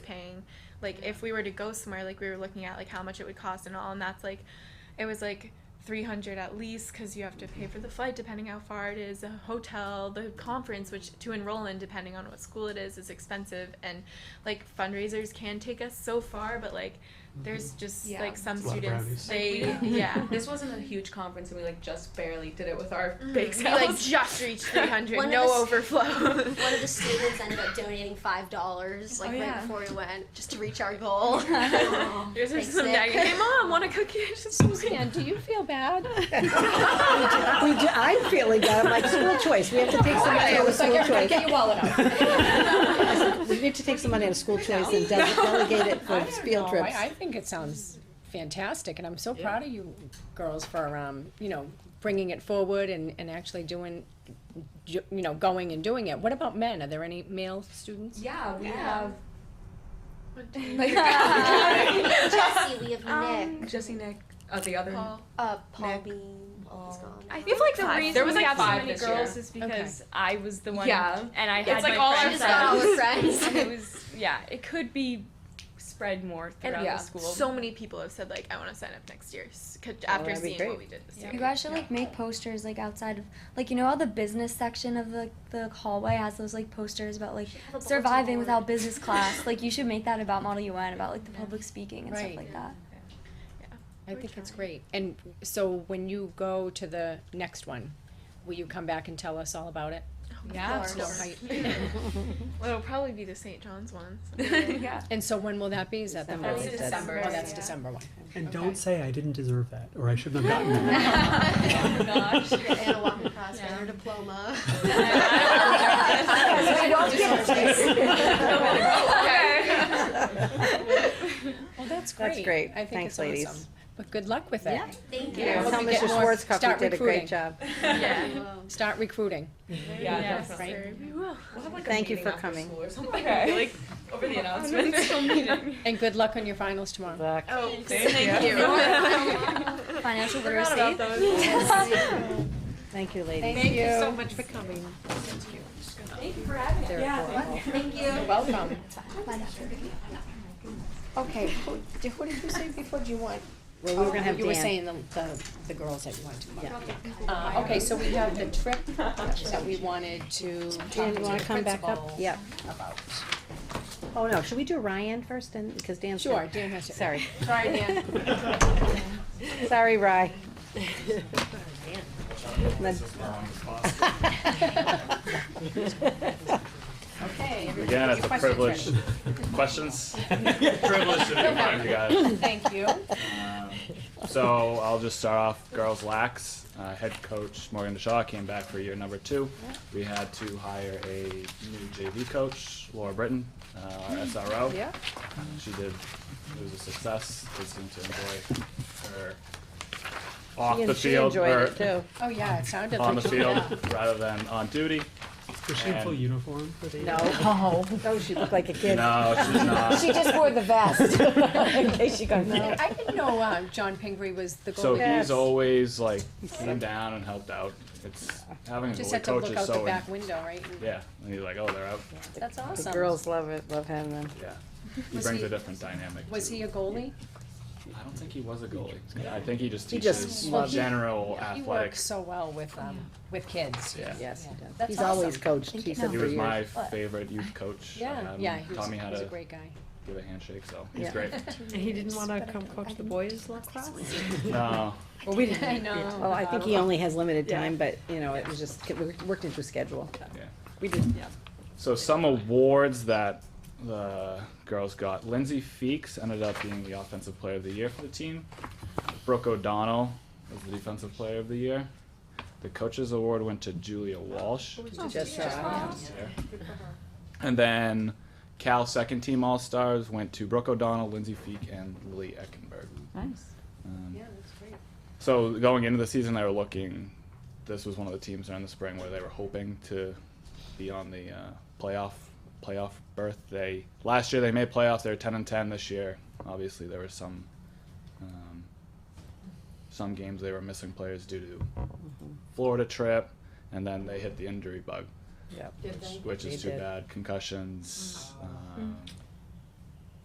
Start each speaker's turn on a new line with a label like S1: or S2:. S1: and like if we were to go somewhere like we were looking at like how much it would cost and all and that's like it was like 300 at least because you have to pay for the flight depending how far it is a hotel the conference which to enroll in depending on what school it is is expensive and like fundraisers can take us so far but like there's just
S2: Mm-hmm. Yeah.
S1: like some
S3: It's a lot of
S1: students
S3: brownies.
S1: they
S2: Like, we-
S1: yeah
S2: This wasn't a huge conference, and we like just barely did it with our
S1: Mhm.
S2: big
S1: we like
S2: selves.
S1: just reached 300
S4: One of
S1: no
S4: us-
S1: overflow
S4: One of the students ended up donating five dollars, like
S2: Oh,
S4: right
S2: yeah.
S4: before we went, just to reach our goal.
S2: Aw.
S1: Yours are
S4: Thanks,
S1: some
S4: Nick.
S1: nagging. Hey, mom, want a cookie?
S5: Suzanne, do you feel bad?
S6: We do, I'm feeling bad, I'm like, school choice, we have to take some money out of school choice.
S5: your wallet out.
S6: We need to take some money out of school choice and de- delegate it for
S5: I don't
S6: field
S5: know. Oh, I-
S6: trips.
S5: I think it sounds fantastic, and I'm so proud of you girls for, um, you know, bringing it forward and, and actually doing, ju- you know, going and doing it. What about men? Are there any male students?
S2: Yeah, we
S1: Yeah.
S4: Jesse, we have
S2: have
S4: Nick,
S2: Jesse, Nick, uh, the other.
S1: Paul.
S4: uh, Paul
S2: Um, Nick.
S4: Bean. He's
S2: Paul.
S4: gone.
S1: I
S2: We
S1: think
S2: have like
S1: the
S2: five.
S1: reason
S2: There was
S1: we
S2: like
S1: have so
S2: five
S1: many
S2: this
S7: girls
S2: year.
S7: is because I was the one,
S2: Yeah.
S7: and I
S2: It's
S7: had
S2: like
S7: my
S1: Oh,
S2: all our
S4: She
S7: friends
S4: just got all
S7: out.
S4: her friends.
S7: And it was yeah, it could be spread more throughout
S2: yeah.
S7: the school.
S1: So many people have said like, I want to sign up next year s- 'cause after
S6: Oh, that'd be
S1: seeing
S6: great.
S1: what we did this
S7: Yeah.
S1: year.
S8: You guys should like make posters like outside of like you know how the business section of the the hallway has those like posters about like
S4: Have a bulletin
S8: surviving
S4: board.
S8: without business class. like you should make that about Model UN about like the public speaking and
S5: Right.
S8: stuff like that.
S5: I
S1: We're
S5: think it's
S1: trying.
S5: great. And so when you go to the next one, will you come back and tell us all about it?
S2: Yeah.
S4: Of
S5: No,
S4: course.
S5: I-
S1: Well, it'll probably be the St. John's one.
S2: yeah.
S5: And so when will that be? Is that the
S6: December.
S5: month?
S6: That's
S2: December.
S5: Oh, that's
S2: Yeah.
S5: December one.
S3: And
S5: Okay.
S3: don't say I didn't deserve that, or I shouldn't have gotten that.
S2: Oh, gosh.
S4: Anna walking across with her diploma.
S6: I don't give a
S5: Well, that's great.
S6: That's great.
S5: I think
S6: Thanks,
S5: it's
S6: ladies.
S5: awesome. But good luck with it.
S4: Thank you.
S2: Yeah.
S6: Tell
S5: Hope you get
S6: Mr.
S5: more-
S6: Schwarzkopf
S5: start
S6: did a
S5: recruiting.
S6: great job.
S7: yeah.
S5: Start recruiting.
S2: Yeah,
S7: Yeah.
S2: definitely.
S1: Sure, we will.
S2: We'll have, like, a
S6: Thank you
S2: meeting
S6: for
S2: after
S6: coming.
S2: school or something, I feel like, over the announcements.
S5: And good luck on your finals tomorrow.
S1: Oh,
S2: Thank
S1: thank you.
S8: Financial literacy.
S6: Thank you, ladies.
S5: Thank you so
S6: much for coming.
S4: Thank you.
S5: You're welcome. Okay, who, d- who did you say before, do you want? um,
S6: Well, we were gonna have
S5: You were
S6: Dan.
S5: saying the, the, the girls that you want to. Uh, okay, so we have the trip that we wanted to talk to
S6: Dan, you
S5: the
S6: wanna come back up?
S5: principal
S6: Yep.
S5: about.
S6: Oh, no, should we do Ryan first then, because Dan's.
S5: Sure, Dan has to.
S6: Sorry,
S5: Sorry, Dan.
S6: sorry, Rye.
S5: Okay.
S9: Again, it's a privilege. Questions? Privilege to be in front of you guys.
S5: Thank you.
S9: Um, So I'll just start off girls lax. Uh, head coach Morgan DeShaw came back for year number two. We had to hire a new JV coach, Laura Britton, uh,
S6: Mm.
S9: our SRO.
S5: Yeah.
S9: She did, it was a success. They seemed to enjoy her off
S6: She-
S9: the
S6: she
S9: field,
S6: enjoyed
S9: or
S6: it, too.
S5: Oh, yeah, it sounded like.
S9: on the
S5: you-
S9: field,
S5: yeah.
S9: rather than on duty.
S3: Was she in full
S9: And-
S3: uniform for the?
S6: No. No, she looked like a kid.
S9: No, she's not.
S6: She just wore the vest, in case you got know.
S5: I didn't know, uh, John Pingree was the
S9: So
S5: goalie.
S6: Yes.
S9: he's always like came down and helped out. It's having a
S5: Just
S9: goalie
S5: had to
S9: coach
S5: look
S9: is
S5: out the
S9: so
S5: back window, right? And-
S9: yeah. And he's like, oh, they're out.
S5: That's
S6: The
S5: awesome.
S6: girls love it, love having them.
S9: Yeah, he
S5: Was
S9: brings
S5: he-
S9: a different dynamic.
S5: Was
S9: to-
S5: he a goalie?
S9: I don't think he was a goalie. I think he just
S6: He
S9: teaches
S6: just loves it.
S9: general
S5: He
S9: athletic.
S5: works so well with, um, with kids.
S9: Yeah.
S6: Yes, he does.
S5: That's
S6: He's always
S5: awesome.
S6: coached, he said
S9: He
S6: for
S9: was my
S6: years.
S9: favorite youth coach. I
S5: Yeah,
S9: Um, had him
S5: yeah, he was,
S9: taught me
S5: he
S9: how
S5: was a
S9: to
S5: great guy.
S9: give a handshake, so he's
S6: Yeah.
S9: great.
S6: And he didn't wanna come coach the boys lacrosse?
S9: No,
S6: Well, we didn't.
S5: I know.
S6: Well, I think he only has limited time, but, you know, it was just, it wor- worked into a schedule.
S9: yeah.
S6: We did,
S9: So some awards that the girls got. Lindsay Feeks ended up being the offensive player of the year for the team. Brooke O'Donnell was the defensive player of the year. The coaches award went to Julia Walsh.
S5: Oh,
S6: just, uh,
S9: And then Cal second team All Stars went to Brooke O'Donnell, Lindsay Feek, and Lily Eckenberg.
S6: nice.
S9: Um,
S5: Yeah, that's great.
S9: so going into the season, they were looking. This was one of the teams during the spring where they were hoping to be on the uh, playoff playoff berth. They last year they made playoffs. They were ten and ten this year. Obviously, there were some um, some games they were missing players due to
S6: Mm-hmm.
S9: Florida trip, and then they hit the injury bug,
S6: Yep.
S9: which, which is
S6: They
S9: too
S6: did.
S5: Mm.
S9: bad. Concussions, um,